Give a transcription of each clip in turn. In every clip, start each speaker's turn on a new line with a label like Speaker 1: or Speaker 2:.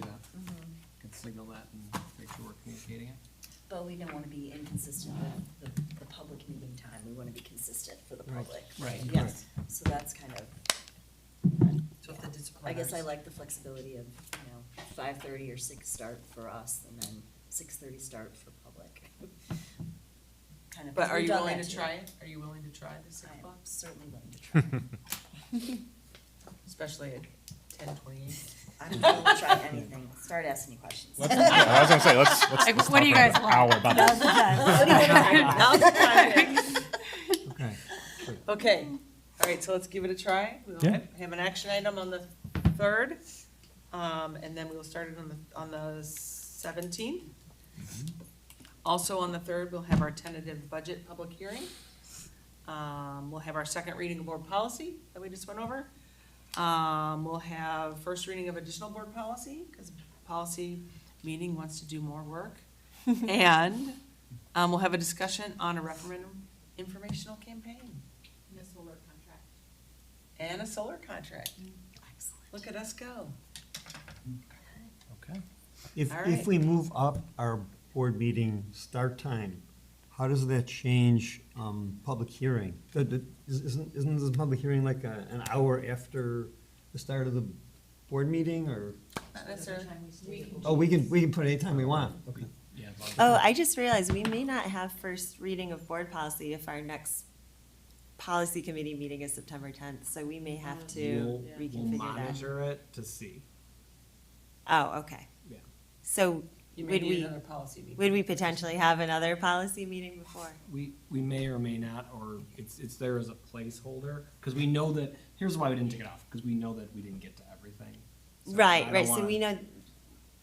Speaker 1: Mm-hmm.
Speaker 2: signal that and make sure we're communicating it.
Speaker 1: But we don't wanna be inconsistent with the, the public meeting time, we wanna be consistent for the
Speaker 2: Right,
Speaker 1: public.
Speaker 2: right,
Speaker 1: Yes, so that's kind of,
Speaker 3: So if the disciplinars.
Speaker 1: I guess I like the flexibility of, you know, five thirty or six start for us, and then six thirty start for public. Kind of,
Speaker 3: But are
Speaker 1: we've
Speaker 3: you
Speaker 1: done
Speaker 3: willing
Speaker 1: that
Speaker 3: to
Speaker 1: too.
Speaker 3: try it? Are you willing to try the six
Speaker 1: I am
Speaker 3: o'clock?
Speaker 1: certainly willing to try.
Speaker 3: Especially at ten twenty-eight?
Speaker 1: I'm willing to try anything, start asking me questions.
Speaker 4: Let's- yeah, I was gonna say, let's, let's.
Speaker 5: Like,
Speaker 4: let's
Speaker 5: what do you guys
Speaker 4: talk for an
Speaker 5: want?
Speaker 4: hour about this.
Speaker 2: Okay.
Speaker 3: Okay, all right, so let's give it a try. We'll
Speaker 4: Yeah.
Speaker 3: have have an action item on the third, um, and then we'll start it on the, on the seventeenth. Also on the third, we'll have our tentative budget public hearing. Um, we'll have our second reading of board policy that we just went over. Um, we'll have first reading of additional board policy, because policy meeting wants to do more work. And, um, we'll have a discussion on a referendum informational campaign. And a solar contract. Look at us go.
Speaker 4: Okay.
Speaker 6: If,
Speaker 3: All right.
Speaker 6: if we move up our board meeting start time, how does that change, um, public hearing? The- the- is- Isn't, isn't this public hearing like a, an hour after the start of the board meeting, or?
Speaker 3: That's our-
Speaker 6: Oh, we can, we can put it anytime we want, okay.
Speaker 2: Yeah. Bob.
Speaker 7: Oh, I just realized we may not have first reading of board policy if our next policy committee meeting is September tenth, so we may have
Speaker 2: We'll-
Speaker 7: to
Speaker 2: We'll
Speaker 7: reconfigure that.
Speaker 2: monitor it to see.
Speaker 7: Oh, okay.
Speaker 2: Yeah.
Speaker 7: So
Speaker 3: You may
Speaker 7: would
Speaker 3: need
Speaker 7: we,
Speaker 3: another policy meeting.
Speaker 7: would we potentially have another policy meeting before?
Speaker 2: We, we may or may not, or it's, it's there as a placeholder, because we know that, here's why we didn't take it off, because we know that we didn't get to everything. So I
Speaker 7: Right,
Speaker 2: don't
Speaker 7: right, so
Speaker 2: wanna-
Speaker 7: we know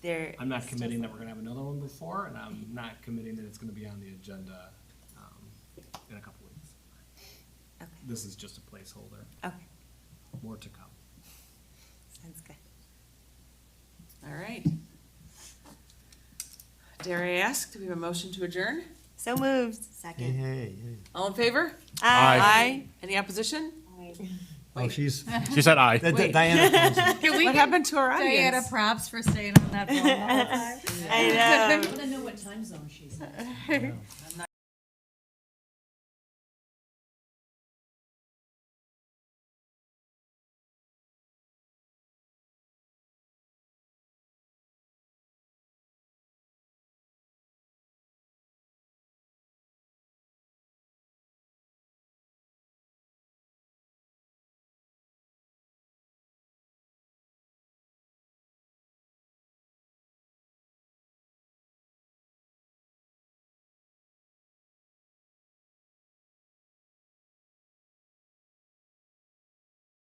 Speaker 7: there.
Speaker 2: I'm not
Speaker 7: it's just-
Speaker 2: committing that we're gonna have another one before, and I'm not committing that it's gonna be on the agenda, um, in a couple weeks.
Speaker 7: Okay,
Speaker 2: This is just a placeholder,
Speaker 7: okay,
Speaker 2: more to come.
Speaker 7: sounds good.
Speaker 3: All right. Dare I ask, do we have a motion to adjourn?
Speaker 7: So moved.
Speaker 6: Hey,
Speaker 7: Second.
Speaker 6: hey, hey.
Speaker 3: All in favor?
Speaker 4: Aye.
Speaker 3: Any opposition?
Speaker 6: Oh, she's,
Speaker 4: She said aye.
Speaker 6: that-
Speaker 3: Wait.
Speaker 6: that Diana.
Speaker 5: Can we
Speaker 3: What
Speaker 5: give
Speaker 3: happened to our
Speaker 5: Diana
Speaker 3: audience?
Speaker 5: props for staying on that long?
Speaker 7: I know.
Speaker 8: I wanna know what time zone she's in.